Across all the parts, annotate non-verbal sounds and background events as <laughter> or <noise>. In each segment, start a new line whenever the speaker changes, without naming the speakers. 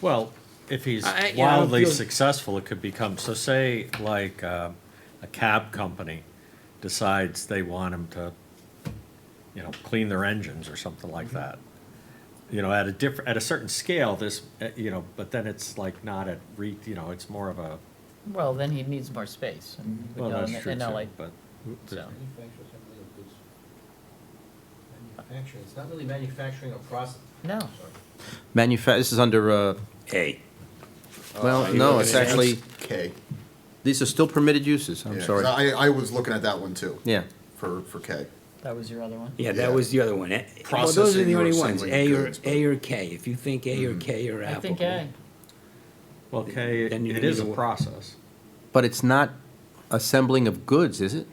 Well, if he's
I- you know,
wildly
feel-
successful, it could become, so say, like, uh, a cab company decides they want him to, you know, clean their engines or something
Mm-hmm.
like that. You know, at a different, at a certain scale, this, uh, you know, but then it's like not at re, you know, it's more of a,
Well, then he needs more space and he
well,
would go
that's
in-
true
in LA.
too, but.
So,
Manufacturers have really good s- Manufacturing, it's not really manufacturing or process.
no,
Manufa, this is under, uh,
A.
well, no, it's actually,
K.
these are still permitted uses, I'm
Yeah, 'cause
sorry.
I, I was looking at that one too.
Yeah,
For, for K.
that was your other one.
Yeah,
Yeah.
that was the other one. A- Well, those are
Processing
the
or
only ones,
assembling
A or,
goods, but- Mm-hmm.
A or K. If you think A or K or
I
Apple.
think A.
Well, Kay,
Then you
it
need
is a
to wo-
process.
but it's not assembling of goods, is it?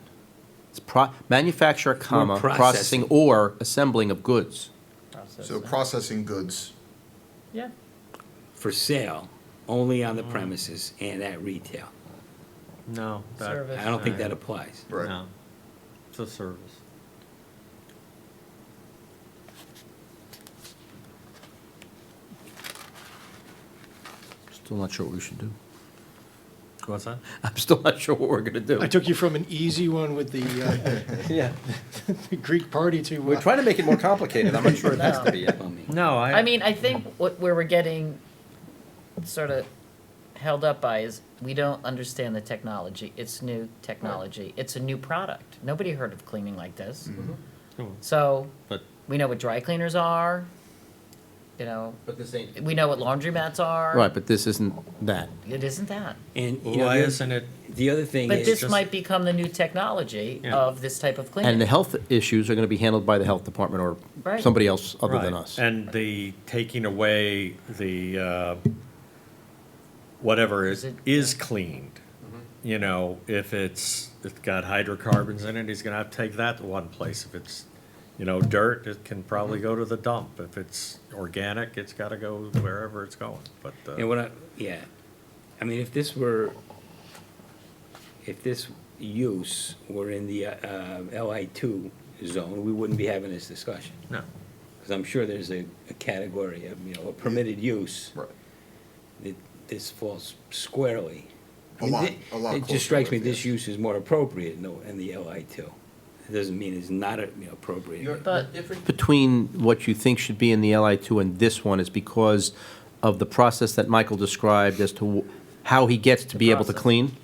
It's pro, manufacturer, comma,
processing.
processing or assembling of goods.
So
Processing.
processing goods,
Yeah,
For sale, only on the
Mm-hmm.
premises and at retail.
No. that-
Service.
I don't think that
no.
applies.
right?
No, it's a service.
Still not sure what we should do. <laughs>
What's <laughs> that?
I'm still not sure what we're gonna do.
I took you from an easy one with the,
Yeah,
uh, the <laughs> Greek party to.
we're
uh,
trying to make it more complicated, I'm not sure it has to be.
Plumbing.
No, I.
I mean, I think what, where we're getting sort of held up by is we don't understand the technology. It's new technology. It's a new product. Nobody heard of cleaning like this.
Mm-hmm.
So
But
we know what dry cleaners are. You know,
<laughs> But this ain't,
we know what laundromats are.
Right, but this isn't that.
It isn't that.
And, you know,
why
the-
isn't it
The other thing
But this
is,
just-
might become the new technology
Yeah.
of this type of cleaning.
And the health issues are gonna be handled by the health department or
Right.
somebody else other than
Right.
us.
And the taking away the, uh, whatever is,
Is it-
is cleaned.
Mm-hmm.
You know, if it's, it's got hydrocarbons in it, he's gonna have to take that to one place. If it's, you know, dirt, it can probably
Mm-hmm.
go to the dump. If it's organic, it's gotta go wherever it's going, but,
and
uh,
what I, yeah, I mean, if this were, if this use were in the, uh, LI two zone, we wouldn't be having this discussion.
no.
Because I'm sure there's a, a category of, you know, a permitted use.
Right.
that This falls squarely. I
A
mean,
lot-
thi-
a lot
It
closer
just strikes me
with
this
this.
use is more appropriate in the, in the LI two. It doesn't mean it's not, you know, appropriate.
you're, the
But-
difference
between what you think should be in the LI2 and this one is because of the process that Michael described as to wh- how he gets to be able to
process.
clean?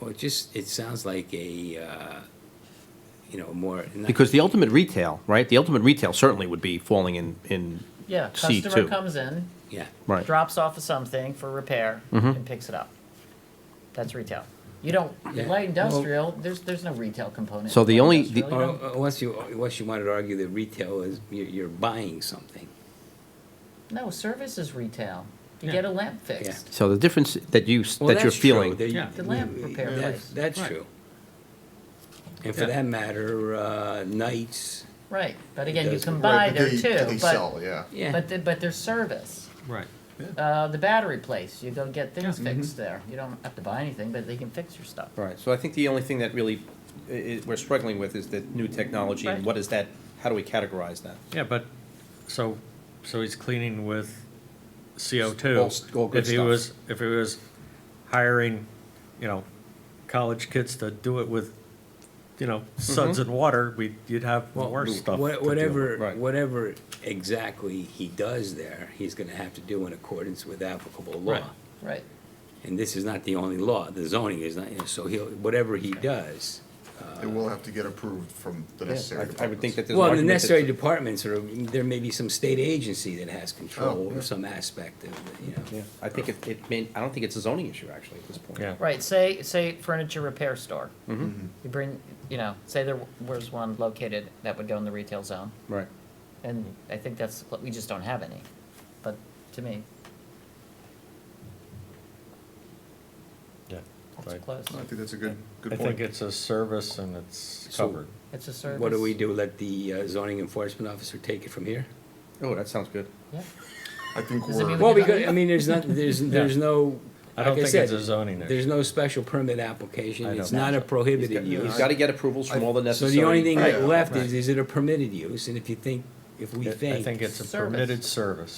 Well, it just, it sounds like a, uh, you know, more. not-
Because the ultimate retail, right, the ultimate retail certainly would be falling in, in,
yeah,
C
customer
two.
comes in,
Yeah.
right. Mm-hmm.
drops off of something for repair, and picks it up. That's retail. You don't
Yeah.
light industrial. there's there's no retail component.
So
in
the
light
only- the-
Or,
industrial, you don't-
or Oh, unless you, unless you wanted to argue that retail is, you're, you're buying something.
no service is retail. You get a lamp fixed.
So the difference that you, s-
Well,
that you're
that's true.
feeling.
They-
Yeah.
The lamp repair
that-
place.
That's
Right.
true. And for
Yeah.
that matter, uh, nights,
Right, but again, you
does-
can buy
Right, but
there
they-
too.
They
But
sell, yeah.
yeah,
but the- but there's service.
Right.
Uh, the battery place, you go get things
Yeah.
Mm-hmm.
fixed there. You don't have to buy anything, but they can fix your stuff.
Right, so I think the only thing that really we're struggling with is the new technology
and Right. what
is that, how do we categorize that?
Yeah, but, so, so he's cleaning with CO two.
All s- all good
If he
stuff.
was, if he was hiring, you know, college kids to do it with, you know, suds and water, we, you'd have
well,
more stuff. to
wha-
do.
whatever,
Right.
whatever exactly he does there, he's gonna have to do in accordance with applicable
Right.
law.
Right.
And this is not the only law, the zoning is not, you know, so he'll, whatever he does.
It will have to get approved from the necessary
Uh, I would think
departments.
that there's an
Well, the
argument that-
necessary departments are, there may be some state agency that has control over some aspect of, it, you know.
Oh, Yeah, I think it, it may, I don't think it's a zoning issue actually at this point. Mm-hmm.
Yeah.
Right, say, say furniture repair store. You bring, you know, say there was one located that would go in the retail zone,
Right.
and I think that's, we just don't have any, but to me,
Yeah.
it's
right.
close.
I think that's a good,
I
good
think
point.
it's a service and it's
So-
covered.
It's a service.
What do we do, let the uh, zoning enforcement officer take it from here?
Oh, that sounds good.
Yeah.
I think
Does it mean
we're,
Well, because, I mean, there's not, there's, there's no,
I don't
like I
think it's a
said,
zoning
there's
issue.
no special permit application,
I
it's
don't-
not a prohibited
He's
use.
got to get approvals from all the
So
necessary.
the only thing
Right.
left
Right.
is, is it a permitted use, and if you think, if we
I
think.
think it's a
Service.
permitted service.